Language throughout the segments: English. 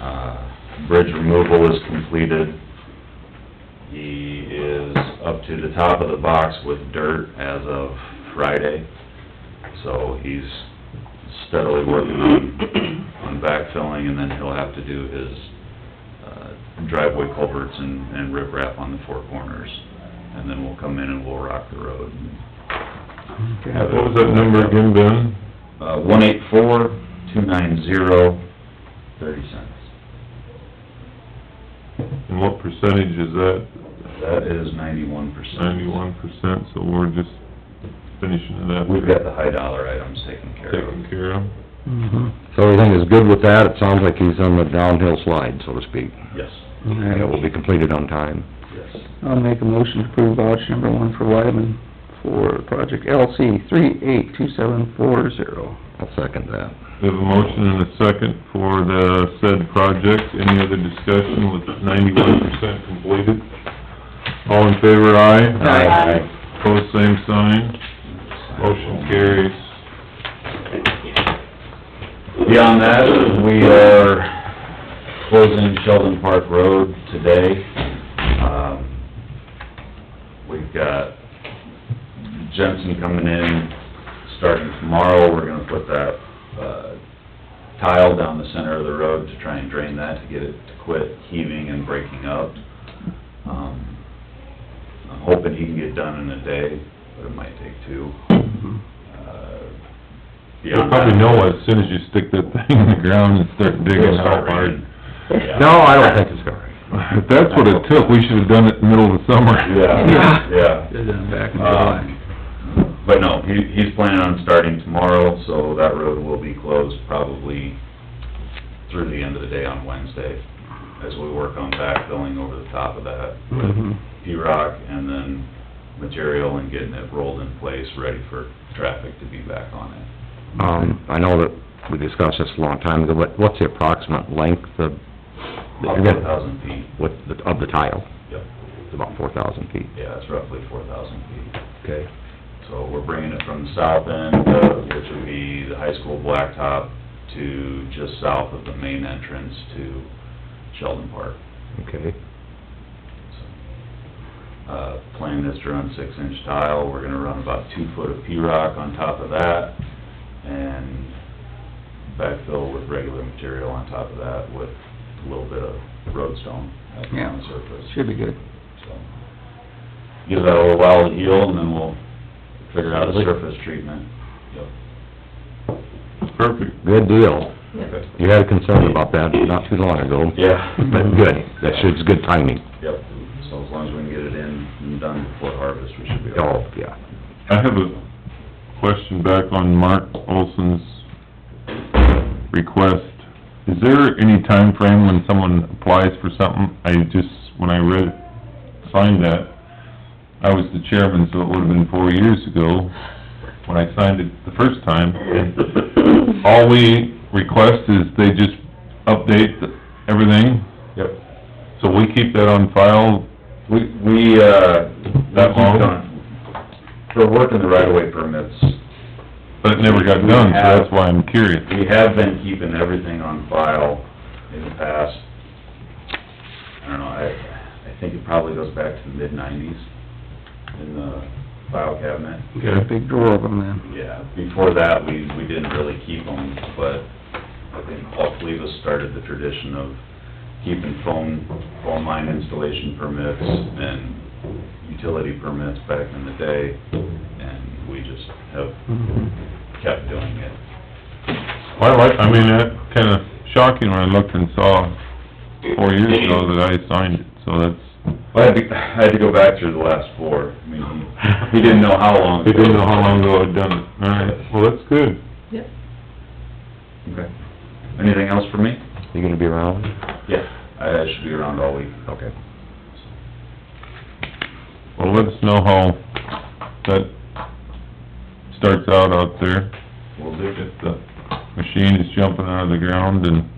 Uh, bridge removal is completed. He is up to the top of the box with dirt as of Friday, so he's steadily working on, on backfilling, and then he'll have to do his uh, driveway culverts and, and riprap on the four corners. And then we'll come in and we'll rock the road. What was that number again, Ben? Uh, one eight four, two nine zero, thirty cents. And what percentage is that? That is ninety-one percent. Ninety-one percent, so we're just finishing it up. We've got the high dollar items taken care of. Taken care of. Mm-hmm. So everything is good with that, it sounds like he's on the downhill slide, so to speak, Yes, and it will be completed on time. yes. I'll make a motion to approve voucher number one for Wyman for project LC three eight two seven four zero. I'll second that. We have a motion and a second for the said project. Any other discussion with ninety-one percent completed? All in favor, aye? Aye. Pose same sign. Motion carries. Beyond that, we are closing Sheldon Park Road today. Um, We've got Jensen coming in, starting tomorrow, we're gonna put that, uh, tile down the center of the road to try and drain that, to get it to quit heaving and breaking up. Um, I'm hoping he can get done in a day, but it might take two. Uh, You'll beyond probably that- know as soon as you stick that thing in the ground and start digging how hard. Yeah. No, I don't think it's going. If that's what it took, we should've done it in the middle of the summer. Yeah, yeah. back in Ah. July. Um, But no, he, he's planning on starting tomorrow, so that road will be closed probably through the end of the day on Wednesday, as we work on backfilling over the top of that with Mhm. P-rock and then material and getting it rolled in place, ready for traffic to be back on it. Um, I know that we discussed this a long time ago, but what's the approximate length of, About four thousand feet, what, the- of the tile? yep, It's about four thousand feet. yeah, it's roughly four thousand feet. Okay. So we're bringing it from the south end, uh, which would be the high school blacktop, to just south of the main entrance to Sheldon Park. Okay. So, Uh, plan is to run six-inch tile, we're gonna run about two foot of P-rock on top of that, and backfill with regular material on top of that with a little bit of roadstone up on Yeah. the surface. Should be good. So, Give that a little while to heal, and then we'll figure out a surface treatment. Perfect. Good deal. Yep. You had a concern about that not too long ago. Yeah. But good, that should, it's good timing. Yep, so as long as we can get it in and done before harvest, we should be all Oh, yeah. I have a question back on Mark Olson's request. Is there any time frame when someone applies for something? I just, when I read, signed that, I was the chairman, so it would've been four years ago when I signed it the first time. And All we request is they just update the- everything, Yep. so we keep that on file. We, we, uh, That long? For working the right-of-way permits, But it never got done, so that's why I'm curious. we have been keeping everything on file in the past. I don't know, I, I think it probably goes back to the mid-nineties in the file cabinet. We got a big drawer of them then. Yeah, before that, we, we didn't really keep them, but I think Paul Cleavis started the tradition of keeping phone, phone line installation permits and utility permits back in the day, and we just have Mm-hmm. kept doing it. Well, I, I mean, that kinda shocking when I looked and saw four years ago that I signed it, so that's... I had to, I had to go back through the last four, I mean, he didn't know how long. They didn't know how long ago I'd done it. All right, well, that's good. Okay. Anything else for me? You gonna be around? Yeah. I should be around all week. Okay. Well, let us know how that starts out out there, Will do. if the machine is jumping out of the ground and...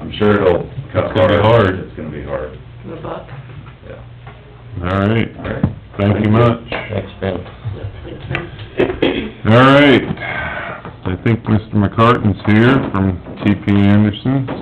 I'm sure it'll cut It's gonna be hard. It's gonna be hard, yeah. All right, All right. thank you much. Thanks, Ben. All right, I think Mr. McCartan's here from TP Anderson.